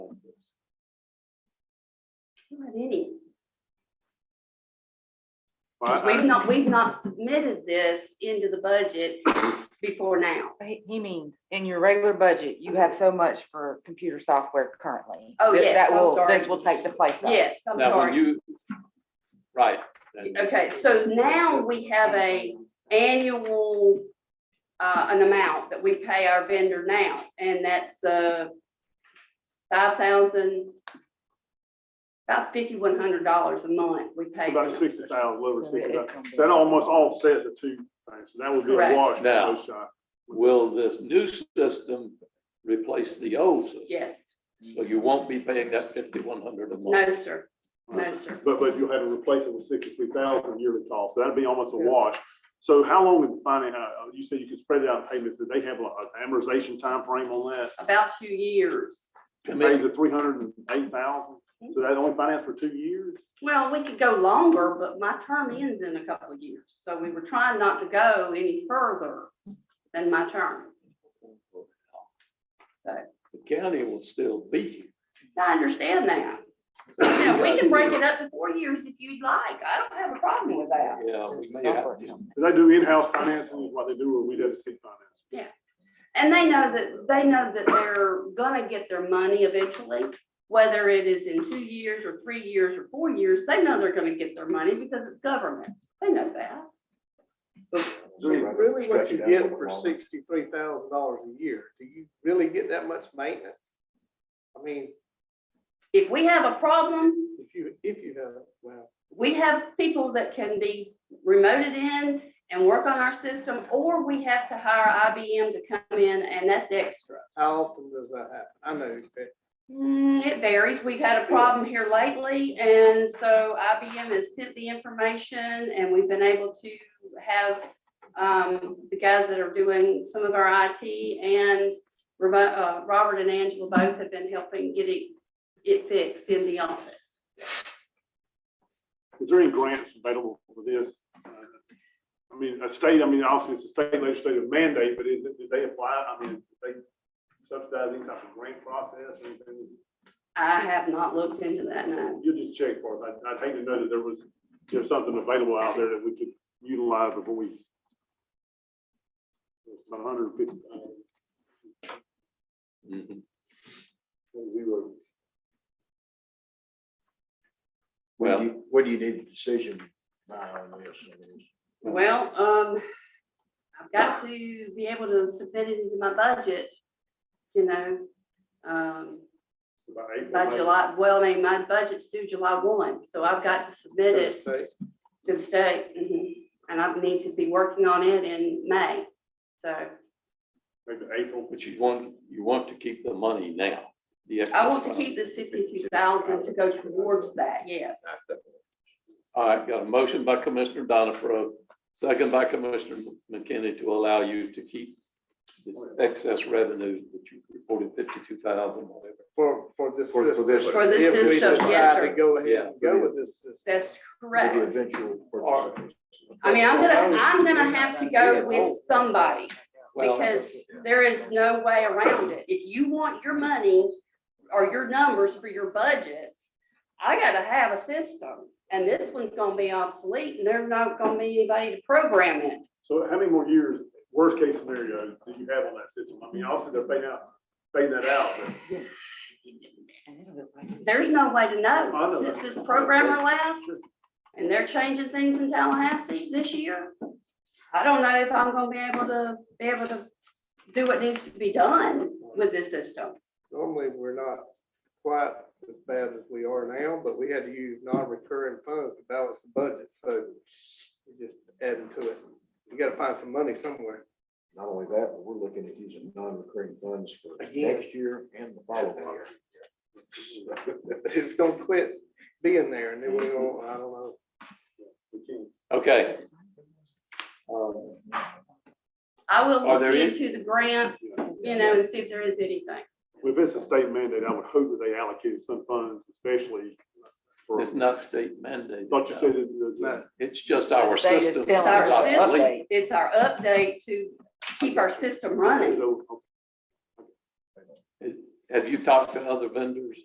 Alrighty. Well, We've I- not, we've not submitted this into the budget before now. He he means, in your regular budget, you have so much for computer software currently. Oh, This- yes, That I'm will, this sorry. will take the place of. Yes, I'm Now, when sorry. you, right. and- Okay, so now we have a annual, uh, an amount that we pay our vendor now, and that's, uh, five thousand, about fifty-one hundred dollars a month we pay. About them. sixty thousand, over So sixty it is thousand. gonna be- So that almost offset the two things. So that would be a Correct. wash for Now. both sides. Will this new system replace the old system? Yes, So you won't be paying that fifty-one hundred a no, month. sir, no, sir. But, but you'll have to replace it with sixty-three thousand yearly cost. So that'd be almost a wash. So how long would the finance, uh, you said you could spread it out in payments. Did they have a- an amortization timeframe on that? About two years. I To pay mean, the three hundred and eight thousand? Mm-hmm. So that only financed for two years? Well, we could go longer, but my term ends in a couple of years, so we were trying not to go any further than my term. So, the county will still be here. I understand that. So you Yeah, we got can break to- it up to four years if you'd like. I don't have a problem with that. Yeah, we may have to. Do they do in-house financing is what they do, or we have to seek financing? And they know that, they know that they're gonna get their money eventually, whether it is in two years or three years or four years, they know they're gonna get their money because it's government. They know that. So really what you get for sixty-three thousand dollars a year, do you really get that much maintenance? I mean, If we have a problem, if you, if you have, well, we have people that can be remoted in and work on our system, or we have to hire IBM to come in and that's extra. how often does that happen? I know, but Mm, it varies. We've had a problem here lately, and so IBM has sent the information, and we've been able to have um, the guys that are doing some of our IT and Robo- uh, Robert and Angela both have been helping get it, it fixed in the office. Is there any grants available for this? Uh, I mean, a state, I mean, obviously it's a state legislative mandate, but is it, did they apply, I mean, did they subsidize any type of grant process or anything? I have not looked into that, no. You just check for us. I'd, I'd hate to know that there was, there's something available out there that we could utilize before we. It's About hundred and fifty uh, thousand, Mhm. zero. What do Well, you, what do you need a decision by on this? Well, um, I've got to be able to submit it into my budget, you know, um, About April, By May. July, well, I mean, my budget's due July one, so I've got to submit it say, to the state. mhm, And I need to be working on it in May, so Maybe April. but you want, you want to keep the money now. the I want to excess keep this fifty-two thousand to go towards that, yes. All right, got a motion by Commissioner Donifro, second by Commissioner McKinney to allow you to keep this excess revenue that you reported fifty-two thousand, whatever. for, for this For- for system. this- For this If we system, yes, decide sir. to go ahead Yeah. and go with this system. That's The correct. eventual Or- purchase. I mean, I'm gonna, I'm gonna have to go with somebody Well, because there is no way around it. If you want your money or your numbers for your budget, I gotta have a system. And this one's gonna be obsolete and there's not gonna be anybody to program it. So how many more years, worst case scenario, do you have on that system? I mean, obviously they're paying out, paying that out, but There's no way to I know know. that. Since this programmer left and they're changing things in Tallahassee this year, I don't know if I'm gonna be able to, be able to do what needs to be done with this system. Normally, we're not quite as bad as we are now, but we had to use non-recurring funds to balance the budget, so we just adding to it. You gotta find some money somewhere. Not only that, but we're looking at using non-recurring funds for Again. next year and the following year. It's gonna quit being there and then we go, I don't know. we can't. okay. Um, I will Are look there any- into the grant, you know, and see if there is anything. If it's a state mandate, I would hope that they allocated some funds, especially for, It's not state mandated. thought you said that- that. No. It's just our The state is system. telling is us Our to system. obsolete. update. It's our update to keep our system running. So, Have you talked to other vendors?